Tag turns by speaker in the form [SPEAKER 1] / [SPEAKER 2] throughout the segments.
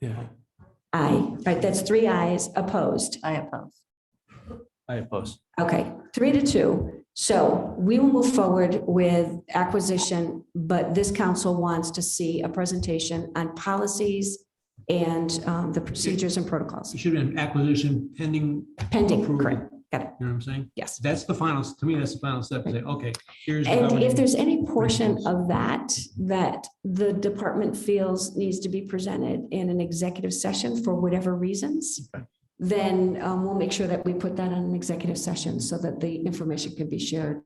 [SPEAKER 1] Yeah,
[SPEAKER 2] Aye, right, that's three ayes opposed.
[SPEAKER 3] I oppose.
[SPEAKER 1] I oppose.
[SPEAKER 2] Okay, three to two. So we will move forward with acquisition, but this council wants to see a presentation on policies and um, the procedures and protocols
[SPEAKER 4] It should have been acquisition pending,
[SPEAKER 2] pending,
[SPEAKER 4] Approval.
[SPEAKER 2] correct? Got it,
[SPEAKER 4] you know what I'm saying?
[SPEAKER 2] yes.
[SPEAKER 4] That's the final, to me, that's the final step, to say, okay, here's. the
[SPEAKER 2] And if
[SPEAKER 4] governance.
[SPEAKER 2] there's any portion of that, that the department feels needs to be presented in an executive session for whatever reasons, then um, we'll make sure that we put that on an executive session so that the information can be shared.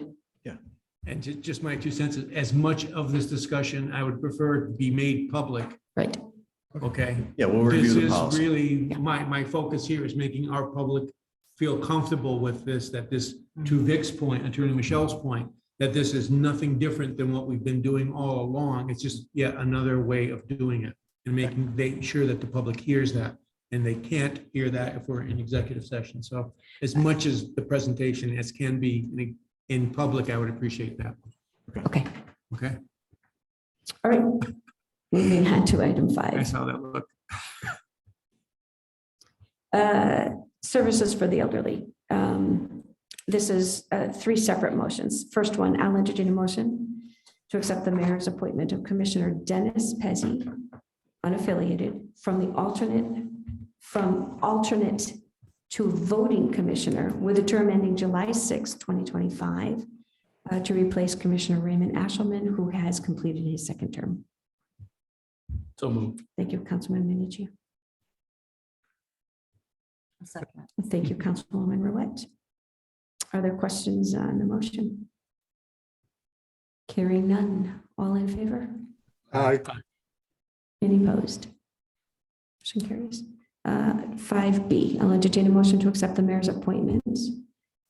[SPEAKER 4] And ju- just my two cents, as much of this discussion, I would prefer it be made public,
[SPEAKER 2] Right,
[SPEAKER 4] okay?
[SPEAKER 5] Yeah, we'll
[SPEAKER 4] This
[SPEAKER 5] review the
[SPEAKER 4] is
[SPEAKER 5] policy.
[SPEAKER 4] really,
[SPEAKER 2] Yeah.
[SPEAKER 4] my, my focus here is making our public feel comfortable with this, that this, to Vic's point, Attorney Michelle's point, that this is nothing different than what we've been doing all along. It's just yet another way of doing it and making, they sure that the public hears that. And they can't hear that if we're in executive session. So as much as the presentation as can be in, in public, I would appreciate that.
[SPEAKER 2] okay.
[SPEAKER 4] Okay,
[SPEAKER 2] All right. Moving on to item
[SPEAKER 4] I
[SPEAKER 2] five,
[SPEAKER 4] saw that look.
[SPEAKER 2] uh, services for the elderly. Um, This is uh, three separate motions. First one, I'll entertain a motion to accept the mayor's appointment of Commissioner Dennis Pezzi, unaffiliated, from the alternate, from alternate to voting commissioner with a term ending July 6, 2025, uh, to replace Commissioner Raymond Ashelman, who has completed his second term.
[SPEAKER 1] So moved.
[SPEAKER 2] Thank you, Councilman Minichi.
[SPEAKER 3] A second.
[SPEAKER 2] Thank you, Councilwoman Ruette. Are there questions on the motion? Carrying none, all in favor?
[SPEAKER 6] Aye.
[SPEAKER 2] Any opposed? Motion carries. Uh, Five B, I'll entertain a motion to accept the mayor's appointments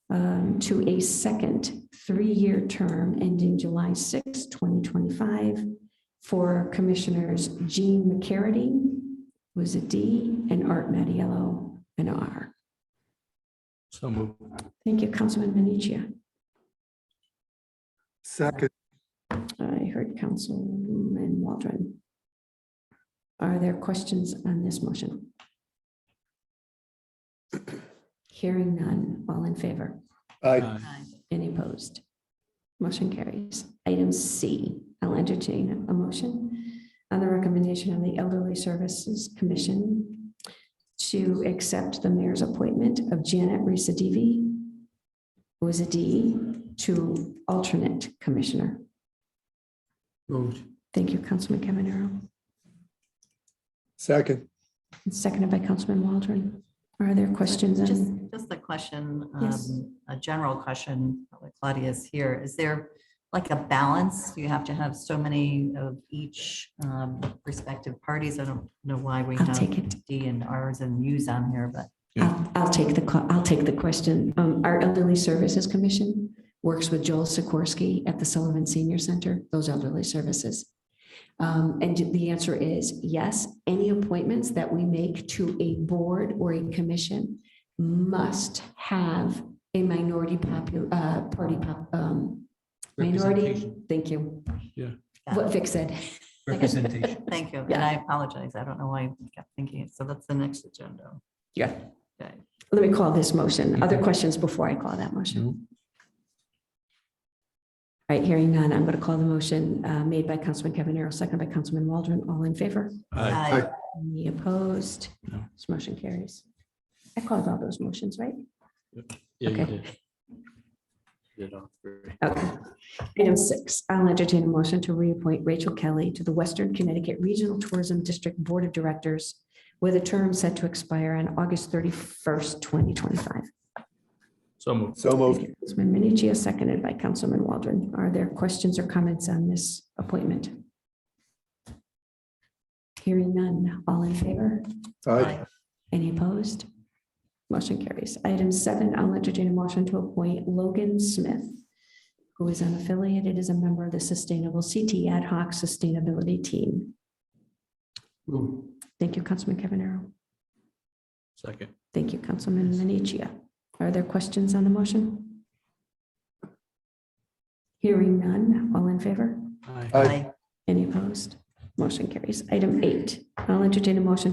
[SPEAKER 2] um, to a second three-year term ending July 6, 2025 for Commissioners Jean McCarity, who is a D, and Art Mattiello, an R.
[SPEAKER 1] So moved.
[SPEAKER 2] Thank you, Councilman Minichia.
[SPEAKER 6] Second,
[SPEAKER 2] I heard Councilman Waldron. Are there questions on this motion? Hearing none, all in favor?
[SPEAKER 6] aye.
[SPEAKER 1] Aye.
[SPEAKER 2] Any opposed? Motion carries. Item C, I'll entertain a motion on the recommendation of the Elderly Services Commission to accept the mayor's appointment of Janet Risa who is a D, to alternate commissioner.
[SPEAKER 4] Moved.
[SPEAKER 2] Thank you, Councilman Cavanero.
[SPEAKER 6] Second,
[SPEAKER 2] And Seconded by Councilman Waldron. Are there questions?
[SPEAKER 3] Just,
[SPEAKER 2] on-
[SPEAKER 3] just a question,
[SPEAKER 2] Yes.
[SPEAKER 3] um, a general question, while Claudia's here. Is there like a balance? Do you have to have so many of each um, respective parties? I don't know why we
[SPEAKER 2] I'll take
[SPEAKER 3] have
[SPEAKER 2] it.
[SPEAKER 3] D and Rs and Us on here, but
[SPEAKER 2] I'll I'll take the, que- I'll take the question. Um, Our Elderly Services Commission works with Joel Sikorsky at the Sullivan Senior Center, those elderly services. Um, And the answer is yes, any appointments that we make to a board or a commission must have a minority popu, uh, party, pop- um, minority,
[SPEAKER 4] Representation.
[SPEAKER 2] thank you.
[SPEAKER 1] Yeah.
[SPEAKER 2] What Vic said.
[SPEAKER 4] Representation.
[SPEAKER 3] thank you. And
[SPEAKER 2] Yeah.
[SPEAKER 3] I apologize. I don't know why I kept thinking. it. So that's the next agenda.
[SPEAKER 2] Yeah.
[SPEAKER 3] Okay.
[SPEAKER 2] Let me call this motion. Other questions before I call that motion? All right, hearing none, I'm going to call the motion uh, made by Councilman Cavanero, second by Councilman Waldron. All in favor?
[SPEAKER 1] Aye.
[SPEAKER 3] Aye.
[SPEAKER 2] Any opposed?
[SPEAKER 1] No.
[SPEAKER 2] This motion carries. I called all those motions, right?
[SPEAKER 1] Yeah, you
[SPEAKER 2] Okay.
[SPEAKER 1] did. Did all three.
[SPEAKER 2] Okay. Item six, I'll entertain a motion to reappoint Rachel Kelly to the Western Connecticut Regional Tourism District Board of Directors with a term set to expire on August 31st, 2025.
[SPEAKER 1] So moved.
[SPEAKER 6] so moved.
[SPEAKER 2] Councilman Minichia, seconded by Councilman Waldron. Are there questions or comments on this appointment? Hearing none. All in favor?
[SPEAKER 6] Aye.
[SPEAKER 2] Any opposed? Motion carries. Item seven, I'll entertain a motion to appoint Logan Smith, who is unaffiliated as a member of the Sustainable CT Ad Hoc Sustainability Team.
[SPEAKER 4] Moved.
[SPEAKER 2] Thank you, Councilman Cavanero.
[SPEAKER 1] Second.
[SPEAKER 2] Thank you, Councilman Minichia. Are there questions on the motion? Hearing none. All in favor?
[SPEAKER 1] Aye.
[SPEAKER 6] Aye.
[SPEAKER 3] Aye.
[SPEAKER 2] Any opposed? Motion carries. Item eight, I'll entertain a motion to